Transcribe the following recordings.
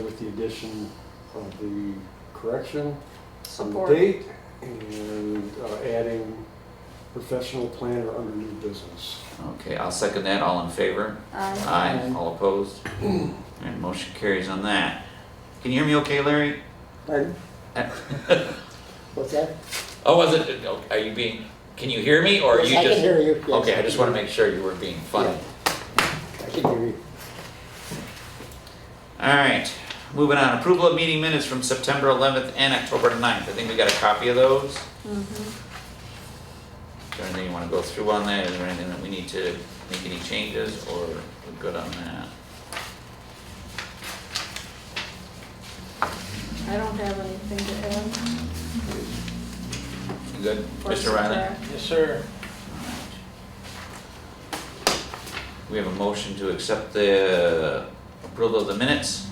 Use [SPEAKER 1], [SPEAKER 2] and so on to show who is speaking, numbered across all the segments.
[SPEAKER 1] with the addition of the correction on the
[SPEAKER 2] Support.
[SPEAKER 1] date and uh, adding professional planner under new business.
[SPEAKER 3] Okay, I'll second that. All in favor?
[SPEAKER 2] Aye.
[SPEAKER 3] Aye. All opposed? And motion carries on that. Can you hear me okay, Larry?
[SPEAKER 4] Pardon? What's that?
[SPEAKER 3] Oh, was it, oh, are you being, can you hear me or are you
[SPEAKER 4] I
[SPEAKER 3] just?
[SPEAKER 4] can hear you, yes.
[SPEAKER 3] Okay, I just want to make sure you were being funny.
[SPEAKER 4] I can hear you.
[SPEAKER 3] All right, moving on. Approval of meeting minutes from September 11th and October 9th. I think we got a copy of those.
[SPEAKER 2] Mm-hmm.
[SPEAKER 3] Is there anything you want to go through on that? Is there anything that we need to make any changes or we're good on that?
[SPEAKER 2] I don't have anything to add.
[SPEAKER 3] You good,
[SPEAKER 2] for
[SPEAKER 3] Mr. Riley?
[SPEAKER 2] subtract.
[SPEAKER 5] Yes, sir.
[SPEAKER 3] We have a motion to accept the approval of the minutes.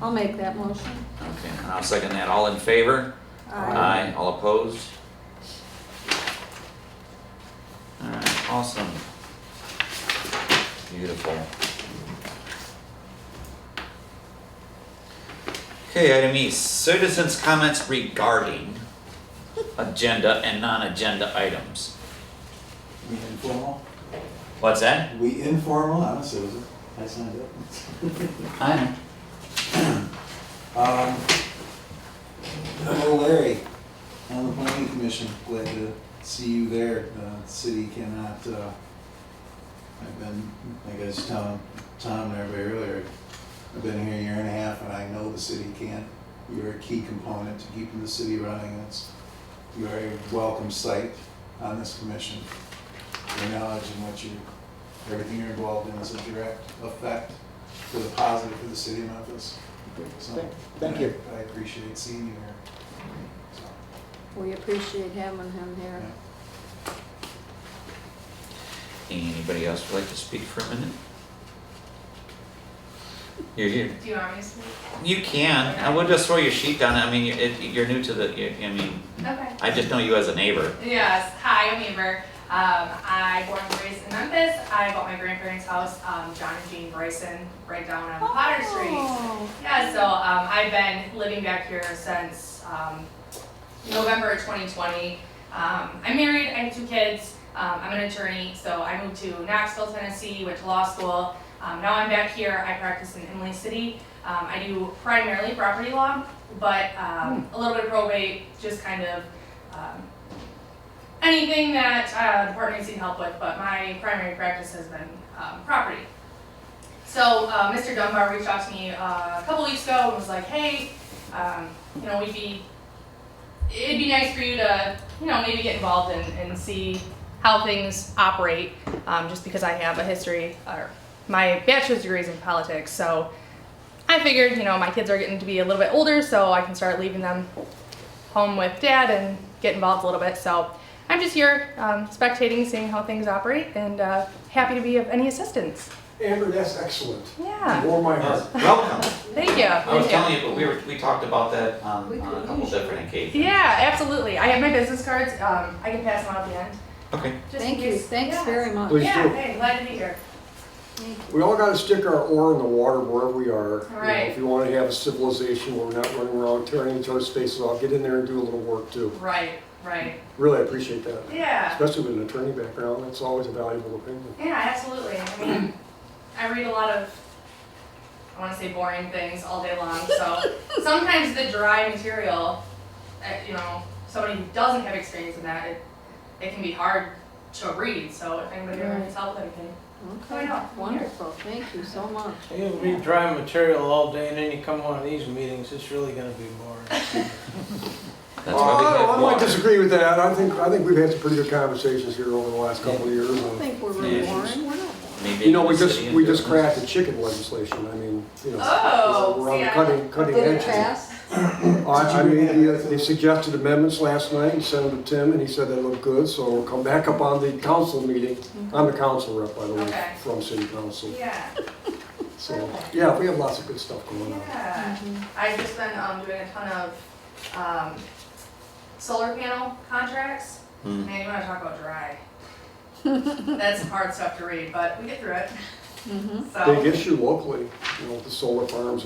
[SPEAKER 2] I'll make that motion.
[SPEAKER 3] Okay, and I'll second that. All in favor? Aye. All opposed? All right, awesome. Beautiful. Okay, item E, citizens' comments regarding agenda and non-agenda items.
[SPEAKER 6] We informal?
[SPEAKER 3] What's that?
[SPEAKER 6] We informal, I'm a citizen, I signed up.
[SPEAKER 3] I
[SPEAKER 6] Um, Hello Larry, on the planning commission, glad to see you there. Uh, The city cannot, uh, I've been, like I was telling Tom and everybody earlier, I've been here a year and a half and I know the city can't. You're a key component to keeping the city running, and it's, you're a welcome sight on this commission. Your knowledge and what you, everything you're involved in is a direct effect for the positive for the city of Memphis. So-
[SPEAKER 4] Thank you.
[SPEAKER 6] I appreciate seeing you here. So,
[SPEAKER 2] We appreciate having him here.
[SPEAKER 6] yeah.
[SPEAKER 3] Anybody else would like to speak for a minute? You're here.
[SPEAKER 7] Do you want me to speak?
[SPEAKER 3] You can. I will just throw your sheet down. I mean, you're, it, you're new to the. you I mean,
[SPEAKER 7] Okay.
[SPEAKER 3] I just know you as a neighbor.
[SPEAKER 7] Yes. Hi, I'm Amber. Um, I born and raised in Memphis. I bought my grandparents' house, um, John and Jean Bryson, right down on Potter Street.
[SPEAKER 2] Oh.
[SPEAKER 7] Yeah, so um, I've been living back here since um, November of 2020. Um, I'm married, I have two kids, um, I'm an attorney, so I moved to Knoxville, Tennessee, went to law school. Um, now I'm back here, I practice in Emily City. Um, I do primarily property law, but um, a little bit of probate, just kind of um, anything that uh, the partners need help with, but my primary practice has been um, property. So uh, Mr. Dunbar reached out to me uh, a couple weeks ago and was like, "Hey, um, you know, we'd be, it'd be nice for you to, you know, maybe get involved and, and see how things operate, um, just because I have a history or my bachelor's degree is in politics, so I figured, you know, my kids are getting to be a little bit older, so I can start leaving them home with dad and get involved a little bit. So I'm just here um, spectating, seeing how things operate, and uh, happy to be of any assistance.
[SPEAKER 1] Amber, that's excellent.
[SPEAKER 7] Yeah.
[SPEAKER 1] Warm my heart.
[SPEAKER 3] Welcome.
[SPEAKER 7] Thank you.
[SPEAKER 3] I was
[SPEAKER 7] Thank you.
[SPEAKER 3] telling you, but we were we talked about that on, on a couple different occasions.
[SPEAKER 7] Yeah, absolutely. I have my business cards. Um, I can pass them out at the end.
[SPEAKER 3] Okay.
[SPEAKER 7] Just in
[SPEAKER 2] Thank you,
[SPEAKER 7] case-
[SPEAKER 2] thanks
[SPEAKER 7] yeah.
[SPEAKER 2] very much.
[SPEAKER 1] Please
[SPEAKER 7] Yeah,
[SPEAKER 1] do.
[SPEAKER 7] hey, glad to be here.
[SPEAKER 2] Thank you.
[SPEAKER 1] We all gotta stick our oar in the water wherever we are. You know,
[SPEAKER 7] Right.
[SPEAKER 1] If you wanna have a civilization where we're not running around tearing each other's faces off, get in there and do a little work too.
[SPEAKER 7] Right, right.
[SPEAKER 1] Really appreciate that.
[SPEAKER 7] Yeah,
[SPEAKER 1] Especially with an attorney background, that's always a valuable opinion.
[SPEAKER 7] yeah, absolutely. I mean, I read a lot of, I want to say boring things all day long. So sometimes the dry material, uh, you know, somebody who doesn't have experience in that, it, it can be hard to read. So if anybody ever needs help with anything,
[SPEAKER 2] Okay,
[SPEAKER 7] Yeah.
[SPEAKER 2] wonderful, thank you so much.
[SPEAKER 5] You read dry material all day and then you come one of these meetings, it's really gonna be boring.
[SPEAKER 3] That's
[SPEAKER 1] Uh,
[SPEAKER 3] why we have
[SPEAKER 1] I might
[SPEAKER 3] water.
[SPEAKER 1] disagree with that. I think, I think we've had some pretty good conversations here over the last couple of years.
[SPEAKER 2] I don't
[SPEAKER 1] and-
[SPEAKER 2] think we're really
[SPEAKER 3] Yeah.
[SPEAKER 2] worrying, we're not worrying.
[SPEAKER 3] Maybe
[SPEAKER 1] You know,
[SPEAKER 3] the
[SPEAKER 1] we just,
[SPEAKER 3] city
[SPEAKER 1] we just
[SPEAKER 3] business.
[SPEAKER 1] crafted chicken legislation. I mean, you know.
[SPEAKER 7] Oh,
[SPEAKER 1] We're on the
[SPEAKER 7] see, I-
[SPEAKER 1] cutting, cutting
[SPEAKER 2] Did
[SPEAKER 1] edge.
[SPEAKER 2] it pass?
[SPEAKER 1] I, I made the, the suggested amendments last night and sent them to Tim, and he said they look good, so we'll come back up on the council meeting. I'm the council rep, by the way,
[SPEAKER 7] Okay.
[SPEAKER 1] from city council,
[SPEAKER 7] yeah.
[SPEAKER 1] so, yeah, we have lots of good stuff going on.
[SPEAKER 7] Yeah,
[SPEAKER 2] Mm-hmm.
[SPEAKER 7] I've just been um, doing a ton of um, solar panel contracts.
[SPEAKER 3] Hmm.
[SPEAKER 7] Man, you want to talk about dry. That's hard stuff to read, but we get through it.
[SPEAKER 2] Mm-hmm.
[SPEAKER 7] so.
[SPEAKER 1] Big issue locally, you know, with the solar farms